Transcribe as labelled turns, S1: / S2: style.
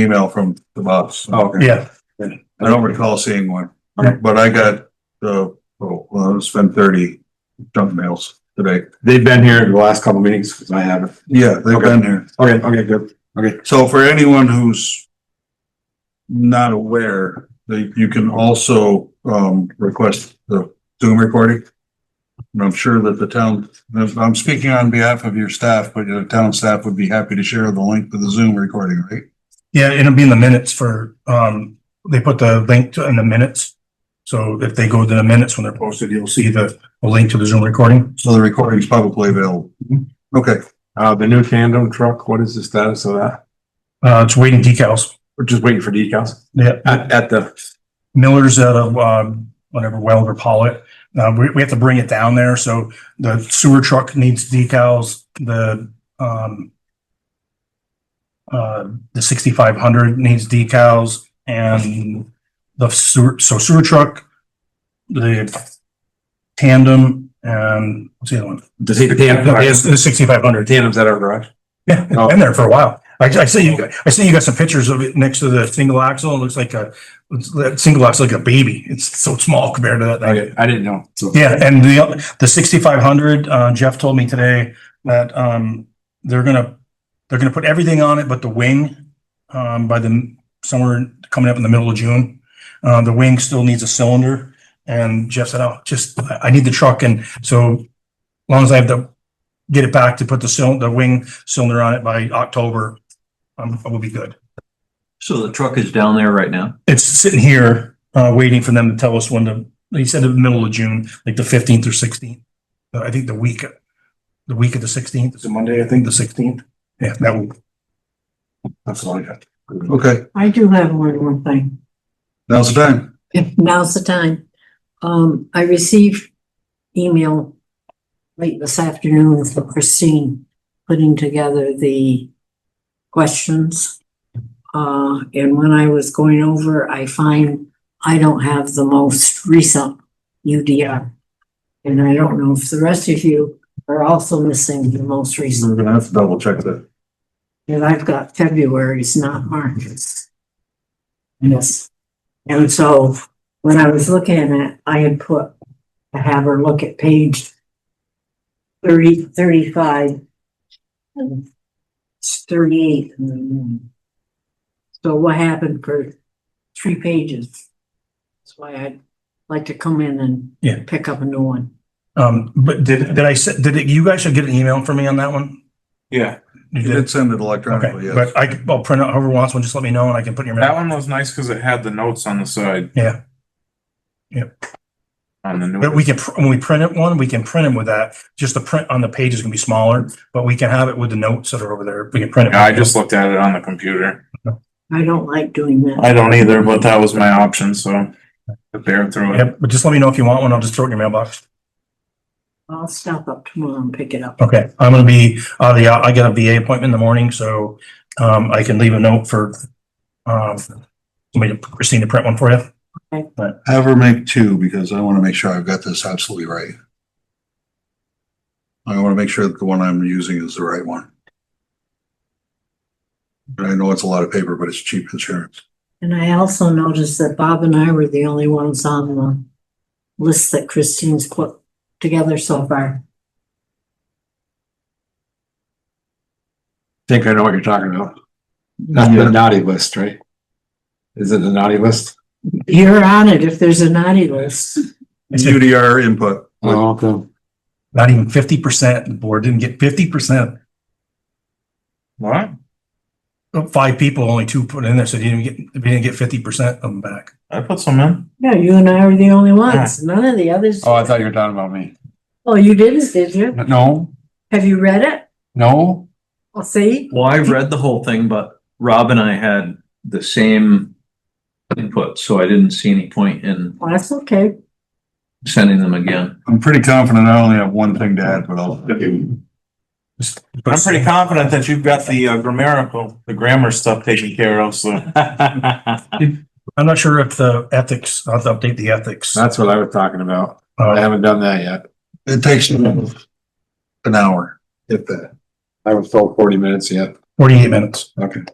S1: email from the boss.
S2: Oh, Okay.
S3: Yeah,
S1: I don't recall seeing one,
S2: Okay.
S1: but I got, uh, oh, well, it's been thirty junk mails today.
S2: They've been here the last couple meetings, because I haven't.
S1: Yeah, they've been there.
S2: Okay, okay, good.
S1: So for anyone who's not aware, they, you can also, um, request the Zoom recording. And I'm sure that the town, I'm speaking on behalf of your staff, but your town staff would be happy to share the link to the Zoom recording, right?
S3: yeah, it'll be in the minutes for, um, they put the link to, in the minutes. So if they go to the minutes when they're posted, you'll see the a link to the Zoom recording.
S1: So the recording's publicly available. Okay,
S2: Uh, the new tandem truck, what is the status of that?
S3: Uh, it's waiting decals.
S2: We're just waiting for decals
S3: Yeah,
S2: at, at the,
S3: Miller's out of, um, whatever, Weld or Pollitt. Uh, we, we have to bring it down there. So the sewer truck needs decals, the, um, uh, the sixty-five hundred needs decals and the sewer, so sewer truck, the tandem and what's the other one?
S2: the tandem,
S3: The sixty-five hundred.
S2: tandems at our garage.
S3: Yeah, it's
S2: Oh.
S3: been there for a while. I, I see you, got- I see you got some pictures of it next to the single axle. It looks like a, it's- that single axle like a baby. It's so small compared to that thing.
S2: Okay, I didn't know. So,
S3: Yeah, and the, the sixty-five hundred, uh, Jeff told me today that, um, they're gonna, they're gonna put everything on it but the wing, um, by the, somewhere coming up in the middle of June. Uh, the wing still needs a cylinder, and Jeff said, oh, just, I I need the truck, and so as long as I have to get it back to put the cylinder, the wing cylinder on it by October, um, I will be good.
S4: So the truck is down there right now?
S3: It's sitting here, uh, waiting for them to tell us when to, he said the middle of June, like the fifteenth or sixteenth. Uh, I think the week, the week of the sixteenth. It's a Monday, I think, the sixteenth. Yeah, that will,
S2: that's all I got.
S1: okay,
S5: I do have one more thing.
S1: now's the time.
S5: If now's the time. Um, I received email late this afternoon from Christine putting together the questions. Uh, and when I was going over, I find I don't have the most recent UDR. And I don't know if the rest of you are also missing the most recent,
S1: We're gonna have to double check that.
S5: and I've got February's, not March's. Yes. And so when I was looking at it, I had put, to have her look at page thirty, thirty-five. and It's thirty-eight. in the morning. So what happened for three pages? That's why I'd like to come in and
S3: Yeah.
S5: pick up a new one.
S3: um, but did, did I, se- did, it- you guys should get an email from me on that one?
S2: Yeah,
S3: You
S1: You
S3: did?
S1: did send it electronically,
S3: Okay,
S1: yes.
S3: but I, c- I'll print out whoever wants one, just let me know and I can put in your.
S6: Oh, That one was nice because it had the notes on the side.
S3: Yeah. Yep.
S6: On the new.
S3: But we can, pr- when we print it one, we can print them with that. Just the print on the page is gonna be smaller, but we can have it with the notes that are over there. We can print it.
S6: Yeah, I just looked at it on the computer.
S5: I don't like doing that.
S6: I don't either, but that was my option, so to bear through it.
S3: Yep, but just let me know if you want one. I'll just throw it in your mailbox.
S5: I'll stop up tomorrow and pick it up.
S3: Okay, I'm gonna be, uh, the, I got a VA appointment in the morning, so, um, I can leave a note for, um, somebody, Christine to print one for you.
S1: Have her make two, because I wanna make sure I've got this absolutely right. I wanna make sure that the one I'm using is the right one. And I know it's a lot of paper, but it's cheap insurance.
S5: And I also noticed that Bob and I were the only ones on the list that Christine's put together so far.
S2: think I know what you're talking about. That's the naughty list, right? Is it the naughty list?
S5: You're on it if there's a naughty list.
S3: It's a-
S1: UDR input, but
S2: Oh, okay.
S3: Not even fifty percent, the board didn't get fifty percent.
S6: What?
S3: Oh, Five people, only two put in there, so you didn't get, you didn't get fifty percent of them back.
S6: I put some in.
S5: Yeah, you and I were the only ones. None of the others.
S2: Oh, I thought you were talking about me.
S5: Oh, you didn't, did you?
S2: No,
S5: Have you read it?
S2: no,
S5: Well, see,
S4: Well, I read the whole thing, but Rob and I had the same input, so I didn't see any point in
S5: well, that's okay.
S4: sending them again.
S1: I'm pretty confident I only have one thing to add, but I'll.
S3: Just-
S6: I'm pretty confident that you've got the uh, grammatical, the grammar stuff taken care of, so.
S3: I'm not sure if the ethics, I'll have to update the ethics.
S2: that's what I was talking about. I
S3: Uh,
S2: haven't done that yet.
S1: It takes an hour, if that.
S2: I haven't filled forty minutes yet.
S3: forty-eight minutes.
S2: Okay.